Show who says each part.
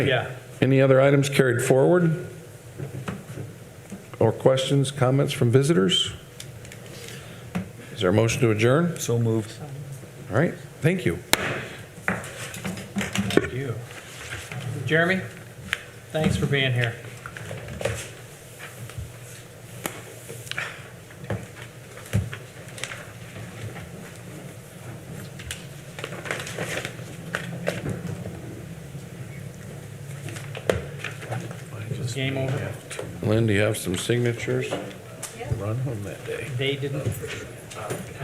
Speaker 1: Yeah.
Speaker 2: Any other items carried forward? Or questions, comments from visitors? Is there a motion to adjourn?
Speaker 3: So moved.
Speaker 2: All right, thank you.
Speaker 1: You. Jeremy, thanks for being here. Game over.
Speaker 2: Lynn, do you have some signatures?
Speaker 1: They didn't